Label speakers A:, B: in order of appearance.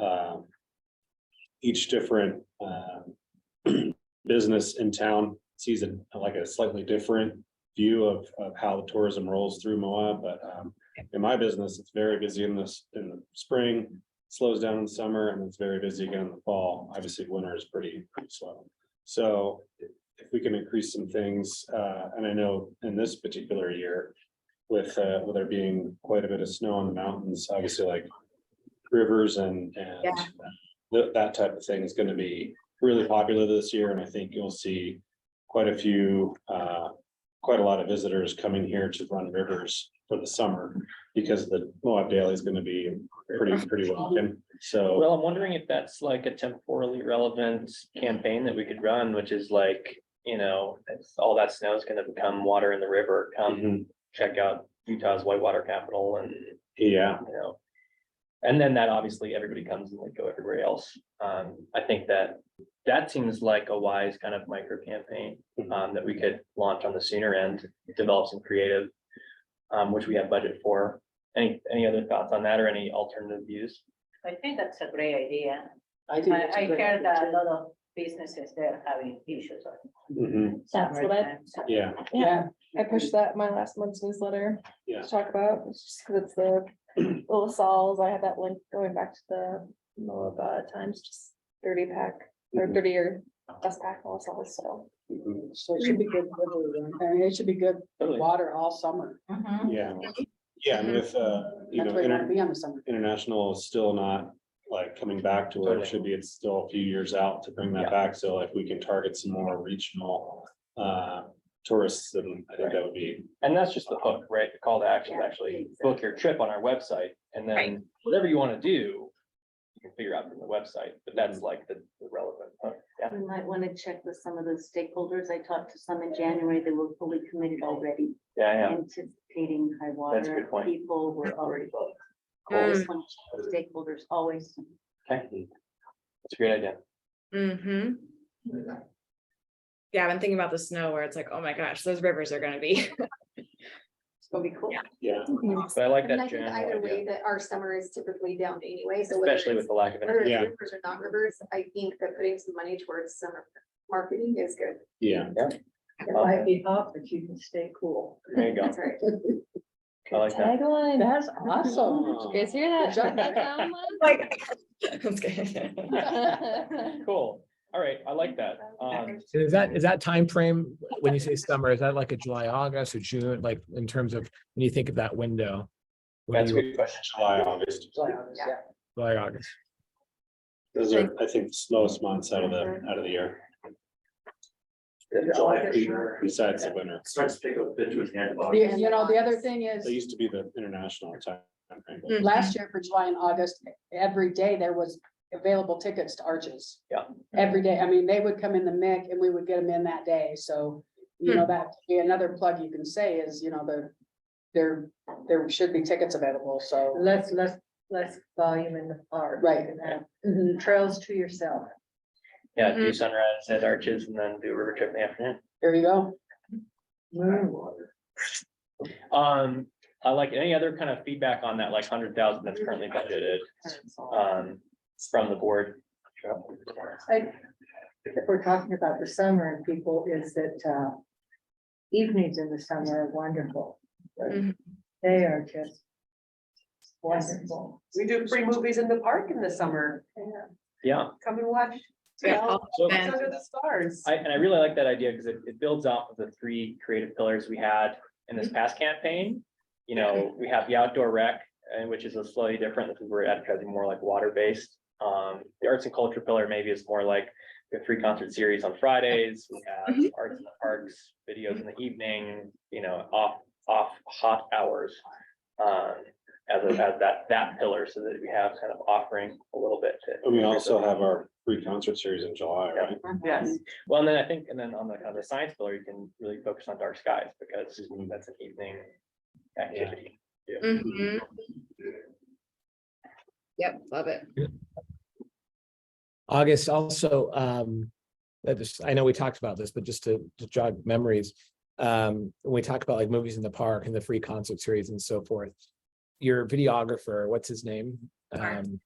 A: um, each different um, business in town sees it like a slightly different view of, of how the tourism rolls through Moab, but um, in my business, it's very busy in this, in the spring, slows down in summer, and it's very busy again in the fall. Obviously, winter is pretty, pretty slow. So if we can increase some things, uh, and I know in this particular year with, uh, with there being quite a bit of snow on the mountains, obviously like rivers and, and
B: Yeah.
A: tha- that type of thing is gonna be really popular this year, and I think you'll see quite a few, uh, quite a lot of visitors coming here to run rivers for the summer because the Moab Daily is gonna be pretty, pretty welcome. So,
C: Well, I'm wondering if that's like a temporally relevant campaign that we could run, which is like, you know, it's- all that snow is gonna become water in the river. Come
A: mhm,
C: check out Utah's whitewater capital and, you
A: yeah,
C: know. And then that obviously everybody comes and like go everywhere else. Um, I think that that seems like a wise kind of micro campaign um, that we could launch on the sooner end, develop some creative, um, which we have budget for. Any, any other thoughts on that or any alternative views?
D: I think that's a great idea.
E: I
D: I,
E: think. it's a
D: I
E: good
D: heard that a
E: idea.
D: lot of businesses there having issues. on-
A: mhm,
F: That's what I,
A: yeah,
F: yeah,
E: Yeah,
G: I pushed that in my last month's newsletter.
A: Yeah.
G: To talk about, it's just because it's the little Sauls, I had that link going back to the Moab uh, Times, just thirty pack, or
A: Mhm.
C: Mm-hmm.
G: thirty or best pack all Sauls, so.
A: mhm,
E: so it should be good, weather then. I mean, it should be good
C: Totally.
E: water all summer.
D: Mm-hmm.
A: yeah, yeah, and with, uh, you
E: Mm-hmm. That's
A: know,
E: where you
A: inter-
E: wanna be on the summer.
A: international is still not like coming back to where it should be. It's still a few years out to bring
C: Yeah.
A: that back. So if we can target some more regional uh tourists, then I think that would be,
C: And that's just the hook, right? The call to action is actually book your trip on our website and
B: Right.
C: then whatever you want to do. You can figure out from the website, but that's like the the relevant hook. Yeah.
H: We might want to check with some of the stakeholders. I talked to some in January. They were fully committed already,
C: Yeah, yeah.
H: anticipating high
C: That's a good
H: water.
C: point.
H: People were already booked. I
C: Cool.
H: just want to check with Stakeholders always.
C: Okay. That's a great idea.
B: Mm-hmm. Yeah, I've been thinking about the snow where it's like, oh my gosh, those rivers are gonna be.
H: It's gonna be cool.
A: yeah,
C: But I like
I: I mean, I
C: that
I: think
C: general
I: either way
C: idea,
I: that our summer is typically down anyway, so. whether
C: especially with
I: it's-
C: the lack of.
I: Whether
C: internet.
A: Yeah.
I: it's rivers or not rivers, I think that putting some money towards summer marketing is good.
A: yeah.
D: It might be hot, but you can stay cool.
C: There you go.
I: That's right.
C: I like that.
F: Tagline.
E: That's awesome.
F: You guys hear that? That sound
B: Like. I'm kidding.
F: one?
C: Cool. All right. I like that. Um,
J: So Is that, is that time frame when you say summer, is that like a July, August or June, like in terms of, when you think of that window? when
C: that's a
J: you-
C: good question.
A: July, August,
E: July, August, yeah.
J: July, August.
A: those are, I think, the slowest months out of the, out of the year.
D: July, for
A: Besides the winter.
K: starts to take a bit to his hand.
E: The- You know, the other thing is.
A: They used to be the international time. frame, but-
E: last year for July and August, every day there was available tickets to Arches.
C: Yeah.
E: Every day, I mean, they would come in the MIC and we would get them in that day, so, you know, that, yeah, another plug you can say is, you know, the. There, there should be tickets available, so,
D: Less, less, less volume in the park.
E: Right.
D: You can have
E: Mm-hmm.
D: Trails to yourself.
C: Yeah,
I: Mm-hmm.
C: do sunrise at Arches and then do a river trip in the afternoon.
E: there you go.
C: Um, I like any other kind of feedback on that, like hundred thousand that's currently budgeted, um, from the board.
D: I, if we're talking about the summer and people, is that, uh, evenings in the summer are wonderful.
B: Mhm.
D: They are just wonderful.
E: We do free movies in the park in the summer,
C: Yeah,
E: come and watch.
B: Yeah.
C: so,
B: And-
E: Under the stars.
C: I, and I really like that idea because it, it builds off of the three creative pillars we had in this past campaign. You know, we have the outdoor rec, and which is a slightly different, this is where advertising more like water-based. Um, the arts and culture pillar maybe is more like the three concert series on Fridays, we have arts in the parks, videos in the evening, you know, off, off hot hours. Um, as, a- as that, that pillar, so that we have kind of offering a little bit to.
A: And we also have our free concert series in July, right?
C: Yes, well, and then I think, and then on the, on the science pillar, you can really focus on dark skies because that's an evening activity.
B: Mhm. Yep, love it.
J: August also, um, that is, I know we talked about this, but just to to jog memories. Um, when we talk about like movies in the park and the free concert series and so forth. Your videographer, what's his name?
B: Mark.
J: Um,